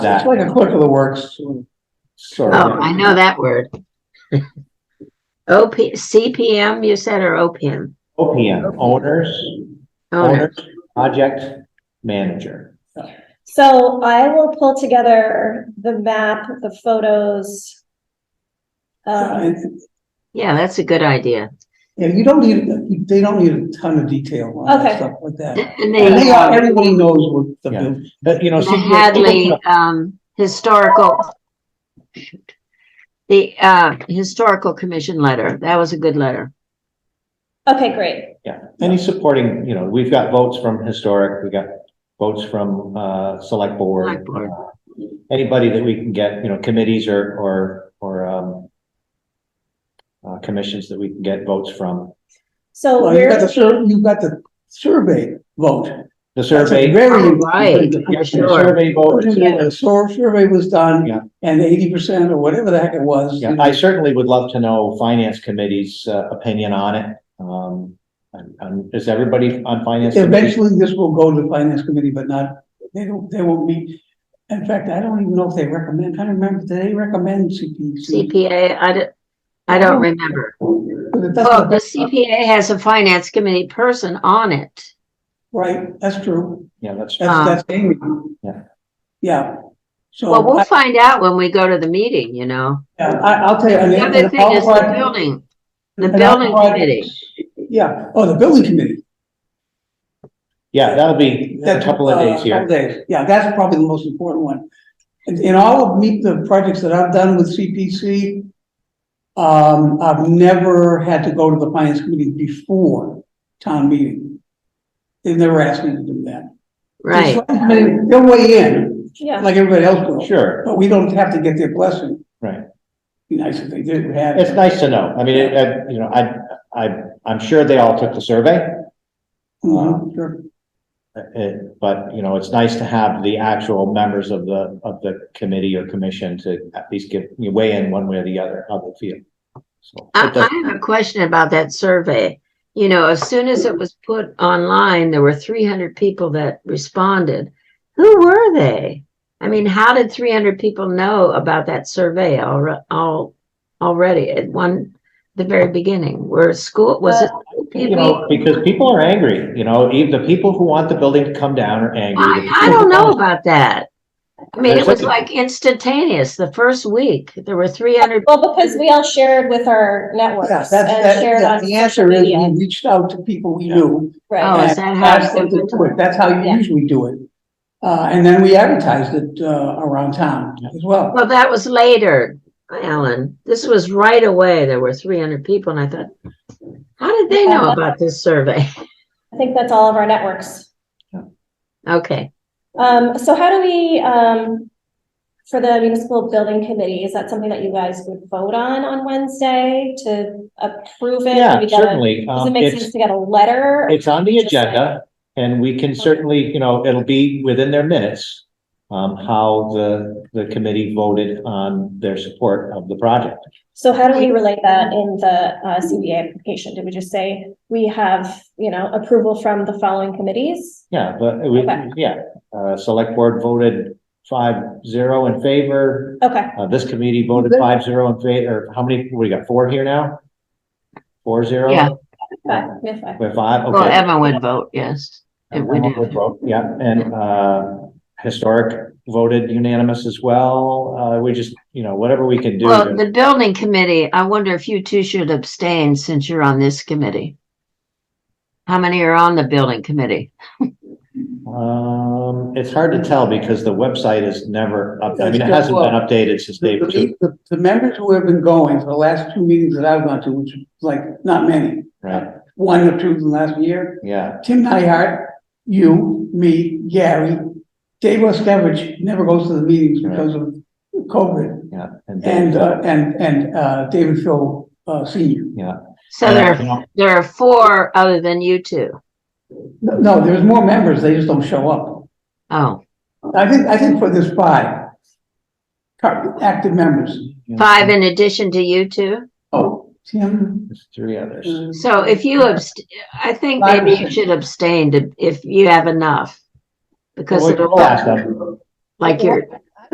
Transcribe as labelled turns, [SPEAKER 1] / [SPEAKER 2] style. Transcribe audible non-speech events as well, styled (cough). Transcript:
[SPEAKER 1] It's
[SPEAKER 2] that.
[SPEAKER 1] like a clerk of the works. Sorry.
[SPEAKER 3] Oh, I know that (laughs) word. OP, CPM, you said, or OPM?
[SPEAKER 2] OPM, owners,
[SPEAKER 3] Owner.
[SPEAKER 2] owners, project manager.
[SPEAKER 4] So I will pull together the map, the photos. Um,
[SPEAKER 1] And-
[SPEAKER 3] Yeah, that's a good idea.
[SPEAKER 1] Yeah, you don't need, they don't need a ton of detail on
[SPEAKER 4] Okay.
[SPEAKER 1] stuff like that. And
[SPEAKER 3] And the,
[SPEAKER 1] they
[SPEAKER 3] uh,
[SPEAKER 1] are, everybody knows what the,
[SPEAKER 2] Yeah.
[SPEAKER 1] bill-
[SPEAKER 2] But, you know,
[SPEAKER 3] the
[SPEAKER 2] see,
[SPEAKER 3] Hadley, um, historical. shoot. The, uh, historical commission letter. That was a good letter.
[SPEAKER 4] Uh, okay, great.
[SPEAKER 2] yeah, any supporting, you know, we've got votes from historic, we got votes from, uh, select board.
[SPEAKER 3] Select board.
[SPEAKER 2] uh, Anybody that we can get, you know, committees or, or, or, um, uh, commissions that we can get votes from.
[SPEAKER 4] So
[SPEAKER 1] well, you got the,
[SPEAKER 4] we're,
[SPEAKER 1] sur- you got the survey vote.
[SPEAKER 2] The
[SPEAKER 1] That's a
[SPEAKER 2] survey,
[SPEAKER 1] Very.
[SPEAKER 3] Oh,
[SPEAKER 1] important
[SPEAKER 3] right.
[SPEAKER 1] thing.
[SPEAKER 2] yeah, the
[SPEAKER 3] Sure.
[SPEAKER 2] survey vote.
[SPEAKER 1] The sur- survey was
[SPEAKER 2] Yeah.
[SPEAKER 1] done and eighty percent or whatever the heck it was.
[SPEAKER 2] Yeah, I certainly would love to know finance committee's, uh, opinion on it. Um, and- and is everybody on finance? committee?
[SPEAKER 1] Eventually, this will go to the finance committee, but not, they don't, they won't meet. In fact, I don't even know if they recommend, I don't remember, do they recommend CPC?
[SPEAKER 3] CPA, I don't, I don't remember.
[SPEAKER 1] But it
[SPEAKER 3] Well, the
[SPEAKER 1] doesn't,
[SPEAKER 3] CPA has a finance committee person on it.
[SPEAKER 1] right, that's true.
[SPEAKER 2] Yeah, that's,
[SPEAKER 3] Um,
[SPEAKER 1] That's, that's Amy.
[SPEAKER 2] Yeah.
[SPEAKER 1] Yeah. So
[SPEAKER 3] Well, we'll
[SPEAKER 1] I,
[SPEAKER 3] find out when we go to the meeting, you know.
[SPEAKER 1] I- I'll tell you. and-
[SPEAKER 3] The other
[SPEAKER 1] and
[SPEAKER 3] thing is the
[SPEAKER 1] I'll-
[SPEAKER 3] building. The
[SPEAKER 1] and I'll
[SPEAKER 3] building
[SPEAKER 1] provide-
[SPEAKER 3] committee.
[SPEAKER 1] Yeah, oh, the building committee.
[SPEAKER 2] yeah, that'll be a
[SPEAKER 1] That's,
[SPEAKER 2] couple of
[SPEAKER 1] uh,
[SPEAKER 2] days here.
[SPEAKER 1] couple days. Yeah, that's probably the most important one. In, in all of me, the projects that I've done with CPC, um, I've never had to go to the finance committee before town meeting. They've never asked me to do that.
[SPEAKER 3] Right.
[SPEAKER 1] The select committee, They'll weigh in,
[SPEAKER 4] yeah,
[SPEAKER 1] like everybody else will.
[SPEAKER 2] Sure,
[SPEAKER 1] But we don't have to get their blessing.
[SPEAKER 2] right.
[SPEAKER 1] Be nice if they did, we had.
[SPEAKER 2] It's nice to know. I mean, it- I, you know, I, I, I'm sure they all took the survey.
[SPEAKER 1] Mhm, sure.
[SPEAKER 2] uh, uh, but, you know, it's nice to have the actual members of the, of the committee or commission to at least give, weigh in one way or the other, how they feel. So.
[SPEAKER 3] I,
[SPEAKER 2] it does-
[SPEAKER 3] I have a question about that survey. You know, as soon as it was put online, there were three hundred people that responded. Who were they? I mean, how did three hundred people know about that survey alre- all, already at one, the very beginning? Were school, was it?
[SPEAKER 2] You know, because people are angry, you know, even the people who want the building to come down are angry.
[SPEAKER 3] I, I don't know about that. I mean, it
[SPEAKER 2] There's
[SPEAKER 3] was
[SPEAKER 2] a-
[SPEAKER 3] like instantaneous. The first week, there were three hundred.
[SPEAKER 4] well, because we all shared with our
[SPEAKER 1] Yeah, that's,
[SPEAKER 4] networks and
[SPEAKER 1] that,
[SPEAKER 4] shared
[SPEAKER 1] that-
[SPEAKER 4] on
[SPEAKER 1] the
[SPEAKER 4] social
[SPEAKER 1] answer is
[SPEAKER 4] media.
[SPEAKER 1] we reached out to people we knew.
[SPEAKER 3] Oh,
[SPEAKER 4] Right,
[SPEAKER 3] is
[SPEAKER 1] and
[SPEAKER 3] that how
[SPEAKER 1] asked them to
[SPEAKER 3] it's
[SPEAKER 1] do it. That's how you
[SPEAKER 4] Yeah.
[SPEAKER 1] usually do it. Uh, and then we advertised it, uh, around town as well.
[SPEAKER 3] Well, that was later, Ellen. This was right away. There were three hundred people and I thought, how did they know about this survey? (laughs)
[SPEAKER 4] I think that's all of our networks.
[SPEAKER 3] Okay.
[SPEAKER 4] Um, so how do we, um, for the municipal building committee, is that something that you guys would vote on on Wednesday to approve it?
[SPEAKER 2] Yeah,
[SPEAKER 4] Do we get a-
[SPEAKER 2] certainly.
[SPEAKER 4] Does it
[SPEAKER 2] Um,
[SPEAKER 4] make
[SPEAKER 2] it's,
[SPEAKER 4] sense to get a letter?
[SPEAKER 2] It's on the
[SPEAKER 4] Just saying.
[SPEAKER 2] agenda and we can certainly, you know, it'll be within their minutes. Um, how the, the committee voted on their support of the project.
[SPEAKER 4] So how do we relate that in the uh CBA application? Did we just say we have, you know, approval from the following committees?
[SPEAKER 2] Yeah, but we,
[SPEAKER 4] Okay.
[SPEAKER 2] yeah, uh, select board voted five zero in favor.
[SPEAKER 4] Okay,
[SPEAKER 2] Uh, this committee voted five zero in favor. How many, we got four here now? Four zero?
[SPEAKER 3] Yeah.
[SPEAKER 4] five, we have five.
[SPEAKER 2] We're five, okay.
[SPEAKER 3] Well, Emma would vote, yes. If we
[SPEAKER 2] Everyone would
[SPEAKER 3] do.
[SPEAKER 2] vote, Yeah, and uh, historic voted unanimous as well. Uh, we just, you know, whatever we can do.
[SPEAKER 3] Well,
[SPEAKER 2] to-
[SPEAKER 3] the building committee, I wonder if you two should abstain since you're on this committee. How many are on the building committee?
[SPEAKER 2] Um, it's hard to tell because the website is never up, I mean, it
[SPEAKER 1] That's
[SPEAKER 2] hasn't
[SPEAKER 1] good.
[SPEAKER 2] been updated since
[SPEAKER 1] The,
[SPEAKER 2] day two,
[SPEAKER 1] the- the members who have been going for the last two meetings that I've gone to, which is like not many,
[SPEAKER 2] right?
[SPEAKER 1] one or two in the last year.
[SPEAKER 2] Yeah,
[SPEAKER 1] Tim Nyhart, you, me, Gary, Dave Oskevich never goes to the meetings because of COVID.
[SPEAKER 2] yeah.
[SPEAKER 1] And, uh, and, and, uh, David Phil, uh, senior.
[SPEAKER 3] So there,
[SPEAKER 2] you
[SPEAKER 3] are
[SPEAKER 2] know,
[SPEAKER 3] there are four other than you two.
[SPEAKER 1] No, No, there's more members, they just don't show up.
[SPEAKER 3] Oh,
[SPEAKER 1] I think, I think for this five, car- active members.
[SPEAKER 2] you know,
[SPEAKER 3] five in addition to you two?
[SPEAKER 1] Oh, Tim.
[SPEAKER 2] There's three others.
[SPEAKER 3] Mm,
[SPEAKER 1] uh,
[SPEAKER 3] So if you abst, I think maybe you should abstain to, if you have enough. Because
[SPEAKER 2] Well, we
[SPEAKER 3] it'll
[SPEAKER 2] can ask them.
[SPEAKER 3] like you're,